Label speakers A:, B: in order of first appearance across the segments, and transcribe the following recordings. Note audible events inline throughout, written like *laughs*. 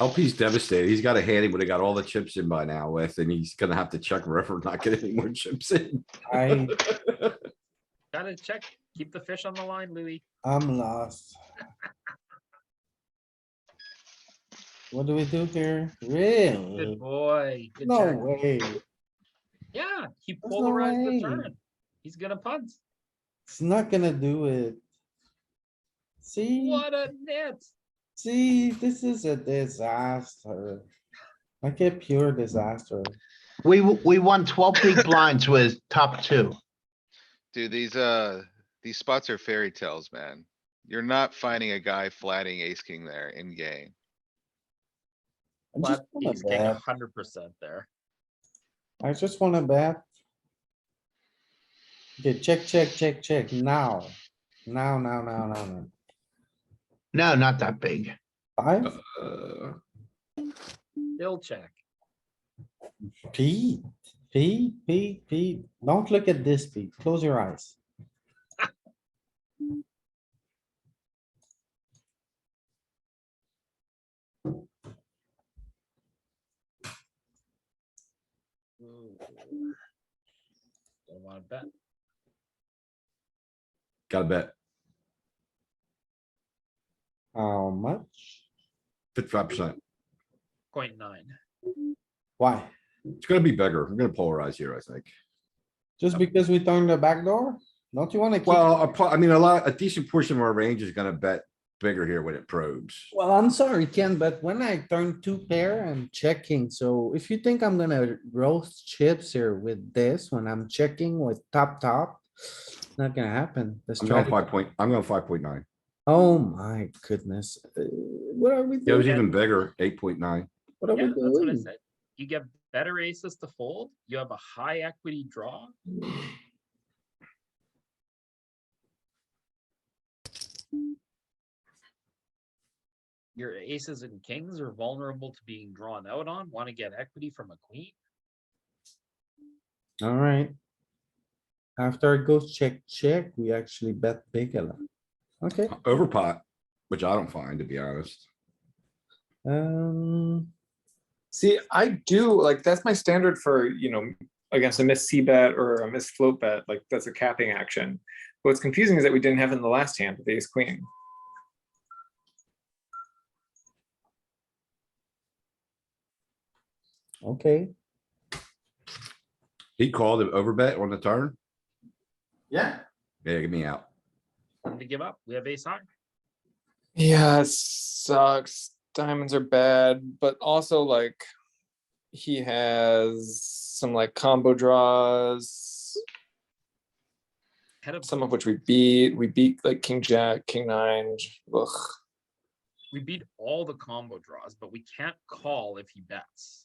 A: LP's devastated. Oh, He's got a hand he would have got all the chips in by now with, and he's gonna have to check river, not get any more chips in.
B: I,
C: Gotta check, keep the fish on the line, Louis.
B: I'm lost. What do we do here? Really?
C: Good boy. Good
B: No
C: check.
B: way.
C: Yeah, he
B: no
C: polarized the
B: way.
C: turn. He's gonna punt.
B: It's not gonna do it. See,
C: What a net.
B: see, this is a disaster. Like a pure disaster.
D: We, w- we won twelve big blinds with top two.
E: Dude, these, uh, these spots are fairy tales, man. You're not finding a guy flatting ace king there in game.
B: I just
C: Flat,
B: wanna
C: he's getting
B: bet.
C: hundred percent there.
B: I just wanna bet. Okay, check, check, check, check now. Now, now, now, now, now.
D: No, not that big.
B: Five
A: Uh,
C: He'll check.
B: Pete, Pete, Pete, Pete. Don't look at this, Pete. Close your eyes.
C: Don't wanna bet.
A: Gotta bet
B: How much?
A: fifty-five percent.
C: Point nine.
B: Why?
A: It's gonna be bigger. I'm gonna polarize here, I think.
B: Just because we turned the back door? Don't you wanna? keep-
A: Well, a po- I mean, a lot, a decent portion of our range is gonna bet bigger here when it probes.
B: Well, I'm sorry, Ken, but when I turn two pair, I'm checking. So if you think I'm gonna roast chips here with this, when I'm checking with top, top, not gonna happen. The
A: I'm going
B: strategy-
A: five point, I'm going five point nine.
B: Oh my goodness. Uh, What are we
A: It was
B: doing?
A: even bigger, eight point nine.
B: What are
C: Yeah,
B: we
C: that's what I
B: doing?
C: said. You get better aces to fold, you have a high equity draw. Your aces and kings are vulnerable to being drawn out on, wanna get equity from a queen,
B: Alright. After it goes check, check, we actually bet big a lot. Okay,
A: Overpot, which I don't find, to be honest.
B: um,
F: See, I do, like, that's my standard for, you know, against a missed C bet or a missed float bet, like, that's a capping action. What's confusing is that we didn't have it in the last hand, with ace queen.
B: okay,
A: He called an overbet on the turn.
D: Yeah.
A: Yeah, get me out.
C: Time to give up, we have ace high.
F: Yeah, it sucks. Diamonds are bad, but also like he has some like combo draws,
C: Head of,
F: some of which we beat. We beat like King Jack, King Nine. Ugh.
C: we beat all the combo draws, but we can't call if he bets.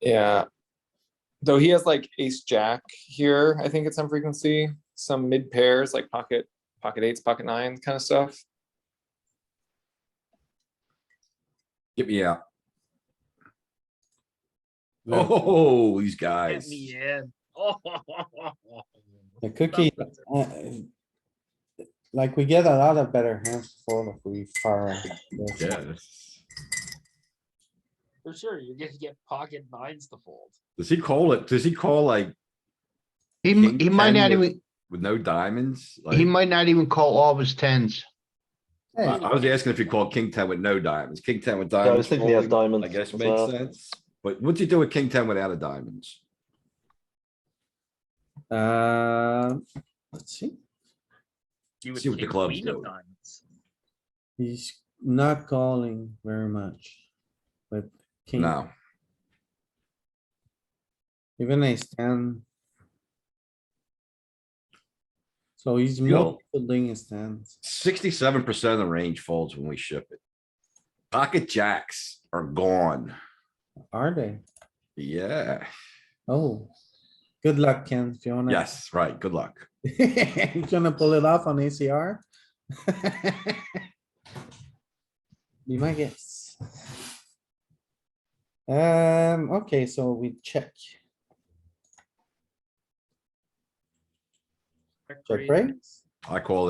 F: Yeah. Though he has like Ace Jack here, I think at some frequency, some mid pairs like pocket pocket eights, pocket nines kind of stuff.
A: Get me out.
B: Yeah.
A: Oh, these
C: Get
A: guys.
C: me in. *laughs* Oh.
B: the cookie, uh, like we get a lot of better hands for if we fire. this.
A: Yeah, that's-
C: For sure, you're gonna get pocket nines to fold.
A: Does he call it? Does he call like
D: He, m-
A: King
D: he might
A: 10
D: not
A: with-
D: even,
A: with no diamonds? Like,
D: he might not even call all of his tens.
B: Hey,
A: I I was asking if he called king ten with no diamonds, king ten with
G: Yeah, I
A: diamonds.
G: was thinking he has
A: folding,
G: diamonds.
A: I guess
G: as
A: makes
G: well.
A: sense. But what'd you do with king ten without a diamonds?
B: Uh, let's see,
C: You
A: See what the clubs do.
C: diamonds.
B: he's not calling very much. But
C: Hmm.
B: king,
A: No,
B: even a ten. So he's
A: Yo.
B: folding his hands.
A: sixty-seven percent of the range folds when we ship it. Pocket jacks are gone.
B: Are they?
A: Yeah,
B: Oh, good luck, Ken, if you wanna. *laughs*
A: yes, right. Good luck.
B: He's gonna pull it off on *laughs* ACR. Be my guess. Um, okay, so we check,
C: Check
B: check
C: raise.
B: raise.
A: I call